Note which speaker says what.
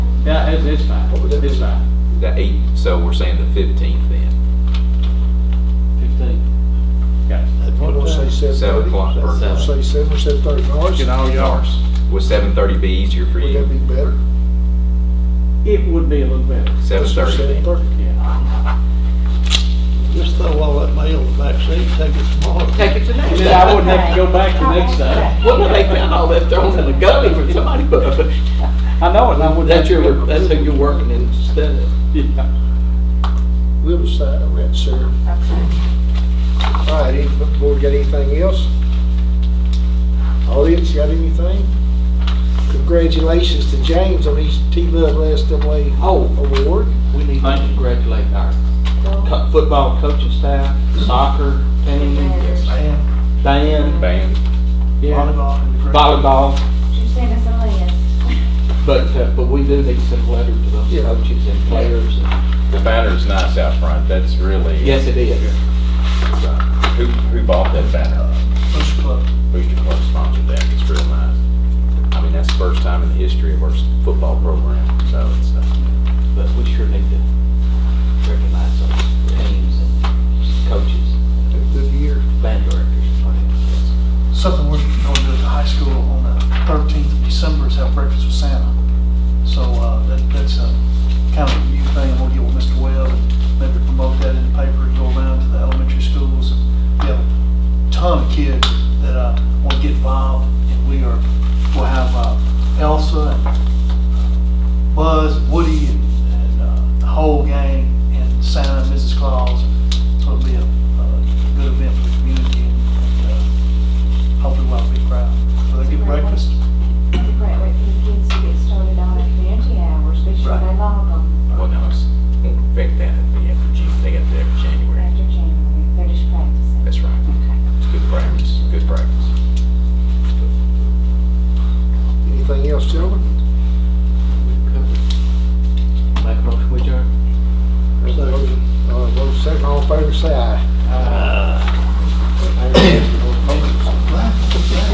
Speaker 1: Yeah, it's, it's fine,
Speaker 2: What was that?
Speaker 1: it's fine.
Speaker 2: The eight, so we're saying the fifteenth then,
Speaker 3: Fifteen.
Speaker 1: Got it.
Speaker 4: If you want to say
Speaker 2: seven
Speaker 4: seven
Speaker 2: o'clock.
Speaker 4: thirty,
Speaker 2: or-
Speaker 3: That's-
Speaker 4: say seven, seven thirty, Norris,
Speaker 1: Get all yours.
Speaker 2: Would seven thirty be easier for
Speaker 4: would that
Speaker 2: you?
Speaker 4: be better?
Speaker 1: It would be a little better.
Speaker 2: Seven
Speaker 4: Seven
Speaker 2: thirty.
Speaker 4: thirty.
Speaker 1: Yeah.
Speaker 5: Just throw all that mail in the back seat, take it tomorrow.
Speaker 6: Take it to
Speaker 1: And
Speaker 6: next
Speaker 1: then I
Speaker 6: time.
Speaker 1: wouldn't have to go back the next time.
Speaker 6: Well, no, they found all that thrown in the gully from somebody, but
Speaker 1: I know it, and I wouldn't. have
Speaker 6: that's
Speaker 1: to go
Speaker 6: your,
Speaker 1: back.
Speaker 6: that's who you're working instead of.
Speaker 1: Yeah.
Speaker 4: Riverside, I rent serve. All right, any, board got anything else? Audience, got anything? Congratulations to James on his T-Love SWA
Speaker 6: Oh,
Speaker 4: award.
Speaker 6: we need to
Speaker 1: Thank you.
Speaker 6: congratulate our co- football coaching staff, soccer team,
Speaker 5: Man,
Speaker 6: band,
Speaker 2: Band.
Speaker 1: Yeah.
Speaker 5: volleyball and cricket.
Speaker 6: volleyball.
Speaker 7: You sent us a list.
Speaker 6: But, uh, but we do need to send a letter to those
Speaker 4: Yeah.
Speaker 6: coaches and players. and-
Speaker 8: The banner's nice out front, that's really. uh,
Speaker 6: Yes, it is.
Speaker 8: Who, who bought that banner?
Speaker 5: Push club.
Speaker 8: Booster Club sponsored that, it's real nice. I mean, that's the first time in the history of our s- football program, so it's, uh,
Speaker 6: But we sure need to recognize those teams and coaches,
Speaker 4: Good year.
Speaker 6: band directors.
Speaker 5: Something we're going to do at the high school on the 13th of December is have breakfast with Santa. So uh, that- that's a kind of a new thing, we'll get with Mr. Webb and maybe promote that in the paper, go around to the elementary schools. We have a ton of kids that uh, want to get involved, and we are, we'll have uh, Elsa and Buzz, and Woody, and and, uh, the whole gang, and Santa and Mrs. Claus. So it'll be a uh, good event for the community, and and, uh, hopefully we'll have a big crowd. So they get breakfast.
Speaker 7: It's a great way for the kids to get started on their community hours, be sure they
Speaker 5: Right.
Speaker 7: log them
Speaker 8: well, no, it's, won't affect that at the end of June, they got to do it in January.
Speaker 7: after January, they're just practicing.
Speaker 8: That's right, it's good practice, good practice.
Speaker 4: Anything else, gentlemen?
Speaker 6: Make a motion, would you?
Speaker 4: Uh, vote second, all in favor, say aye. Aye.